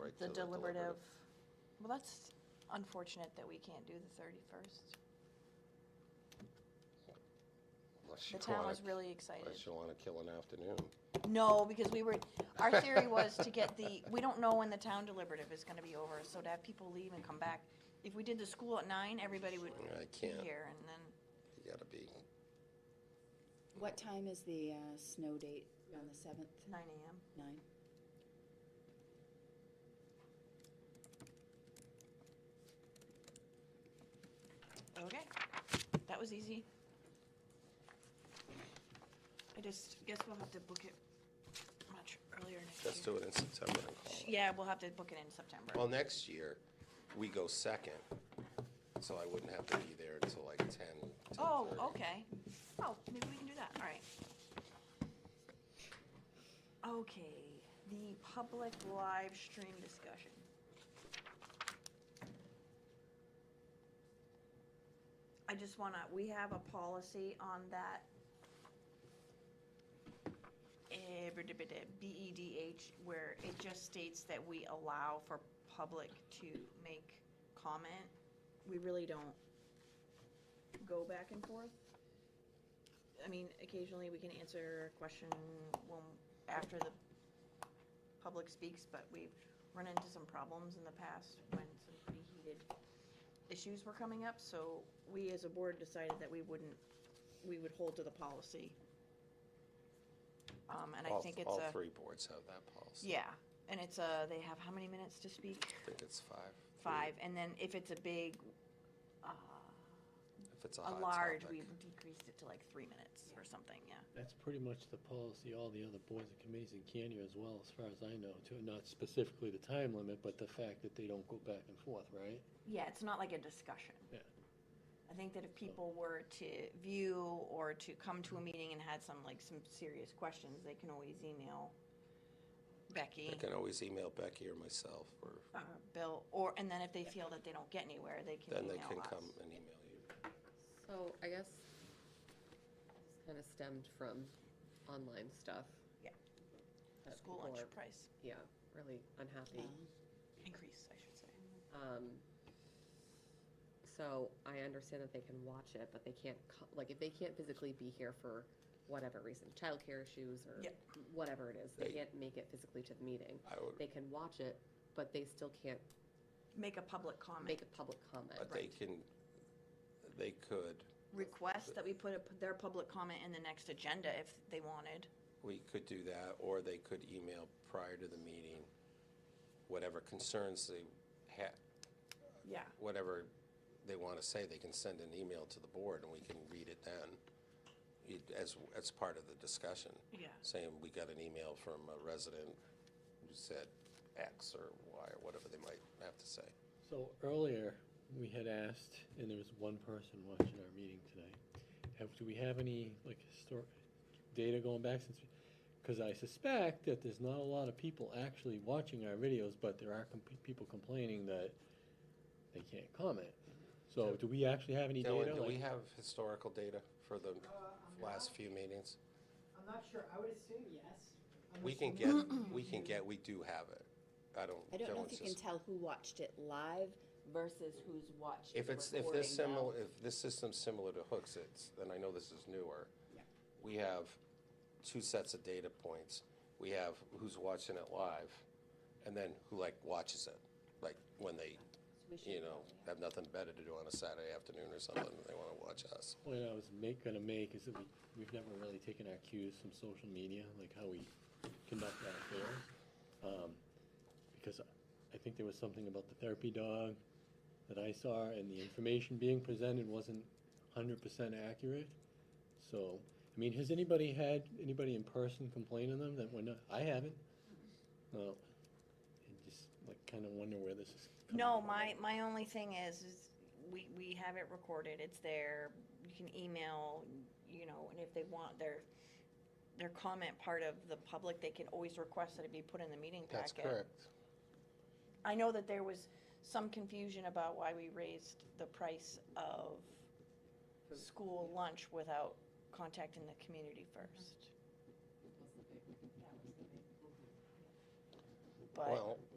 right? The so deliberative, well, that's unfortunate that we can't do the 31st. Unless The you town wanna- was really excited. Unless you want to kill an afternoon. No, because we were, our theory was to get the, we don't know when the town deliberative is gonna be over, so to have people leave and come back. If we did the school at nine, everybody would I be can't. here, and then You gotta be, What time is the uh, snow date on the seventh? nine AM. Nine? Okay, that was easy. I just guess we'll have to book it much earlier next year. let's do it in September and call it. Yeah, we'll have to book it in September. Well, next year, we go second, so I wouldn't have to be there until like 10, 10:30. Oh, okay. Oh, maybe we can do that, all right. Okay, the public live stream discussion. I just wanna, we have a policy on that. eh, BEDH, E where it just states that we allow for public to make comment. We really don't go back and forth. I mean, occasionally we can answer a question when, after the public speaks, but we've run into some problems in the past when some pretty heated issues were coming up, so we as a board decided that we wouldn't, we would hold to the policy. Um, and I All- think it's All a, three boards have that policy. yeah, and it's a, they have how many minutes to speak? I think it's five. three. Five, and then if it's a big, uh, If it's a a hot large, topic. we've decreased it to like three minutes or something, yeah. That's pretty much the policy all the other boards and committees in Canyon as well, as far as I know, too. Not specifically the time limit, but the fact that they don't go back and forth, right? Yeah, it's not like a discussion. Yeah. I think that if people were to view or to come to a meeting and had some, like, some serious questions, they can always email Becky I can always email Becky or myself, or or Bill, or, and then if they feel that they don't get anywhere, they can then email they can us. come and email you. So I guess this kind of stemmed from online stuff. Yeah. That School people are, lunch price Yeah, really Um, unhappy. increase, I should say. Um, so I understand that they can watch it, but they can't, co- like, if they can't physically be here for whatever reason, childcare issues or Yeah. whatever it is, they They- can't make it physically to the meeting. I would, They can watch it, but they still can't Make a public comment, make a public comment. but they can, they could, request that we put a- their public comment in the next agenda if they wanted. we could do that, or they could email prior to the meeting, whatever concerns they ha, Yeah. whatever they want to say, they can send an email to the board and we can read it then. It- As, as part of the discussion, Yeah. saying we got an email from a resident who said X or Y or whatever they might have to say. So earlier, we had asked, and there was one person watching our meeting today. Have, do we have any, like, historic data going back since? Because I suspect that there's not a lot of people actually watching our videos, but there are comp- people complaining that they can't comment. So do we actually have any data? Dylan, do like- we have historical data for the last few meetings? I'm not sure, I would assume yes. We unless can you- get, we can get, we do have it. I don't, I don't know Dylan's if you can just, tell who watched it live versus who's watched the if it's, if recording uh, this now. similar, if this system's similar to Hooks, it's, then I know this is newer. Yeah. We have two sets of data points. We have who's watching it live and then who like watches it, like when they, We should you know, probably have- have nothing better to do on a Saturday afternoon or something, and they want to watch us. Point I was make, gonna make is that we, we've never really taken our cues from social media, like how we conduct our affairs. Um, because I think there was something about the therapy dog that I saw and the information being presented wasn't hundred percent accurate. So, I mean, has anybody had, anybody in person complain to them that we're not, I haven't. No. I just like kinda wonder where this is coming from. No, my, my only thing is, is we, we have it recorded, it's there, you can email, you know, and if they want their, their comment part of the public, they can always request that it be put in the meeting packet. That's correct. I know that there was some confusion about why we raised the price of school lunch without contacting the community first. But. Well,